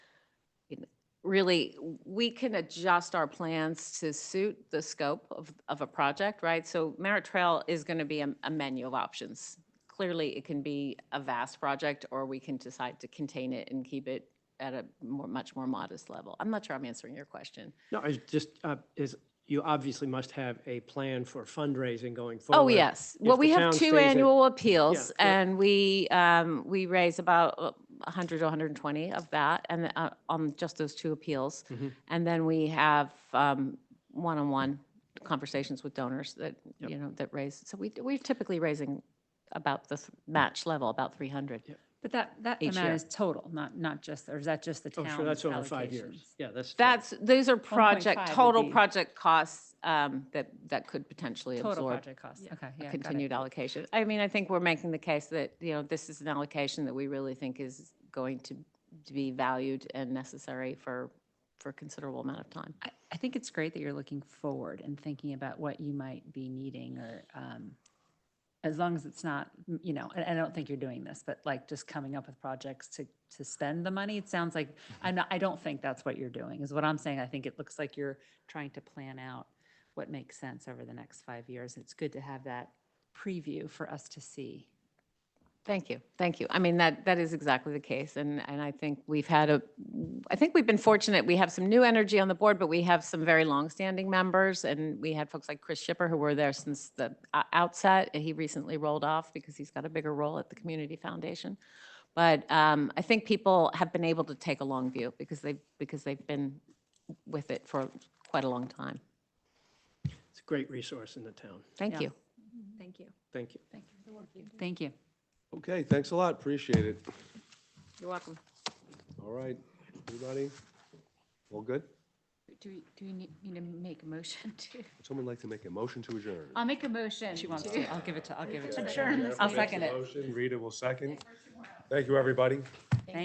really, we can adjust our plans to suit the scope of, of a project, right? So Merritt Trail is going to be a, a menu of options. Clearly, it can be a vast project, or we can decide to contain it and keep it at a more, much more modest level. I'm not sure I'm answering your question. No, I just, uh, is, you obviously must have a plan for fundraising going forward. Oh, yes. Well, the we town have two stays at- annual appeals correct. and we, um, we raise about uh, 100 to 120 of that and, uh, on just those two appeals. Mhm. And then we have, um, one-on-one conversations with donors that, Yep. you know, that raise, so we, we're typically raising about the th- match level, about 300. But that, that Each year. amount is total, not, not just, or is that just the Oh, town's sure, that's over five years. allocations? Yeah, that's. That's, those are project, 1.5 would total be- project costs, um, that, that could potentially Total absorb project cost, okay, yeah, got it. continued allocation. I mean, I think we're making the case that, you know, this is an allocation that we really think is going to to be valued and necessary for, for a considerable amount of time. I, I think it's great that you're looking forward and thinking about what you might be needing or, um, as long as it's not, m- you know, and I don't think you're doing this, but like just coming up with projects to, to spend the money. It sounds like, I'm not, I don't think that's what you're doing is what I'm saying. I think it looks like you're trying to plan out what makes sense over the next five years. It's good to have that preview for us to see. Thank you, thank you. I mean, that, that is exactly the case, and, and I think we've had a, I think we've been fortunate, we have some new energy on the board, but we have some very longstanding members, and we had folks like Chris Shipper who were there since the o- outset, and he recently rolled off because he's got a bigger role at the Community Foundation. But um, I think people have been able to take a long view because they've, because they've been with it for quite a long time. It's a great resource in the town. Thank Yeah. you. Thank you. Thank you. Thank you. Okay, thanks a lot, appreciate it. You're welcome. All right, everybody? All good? Do we, do we need need to make a motion to? Would someone like to make a motion to adjourn? I'll make a motion. She wants to, I'll give it to, I'll give it to her. Adjourn this I'll second it. Motion, Rita will second. Thank you, everybody.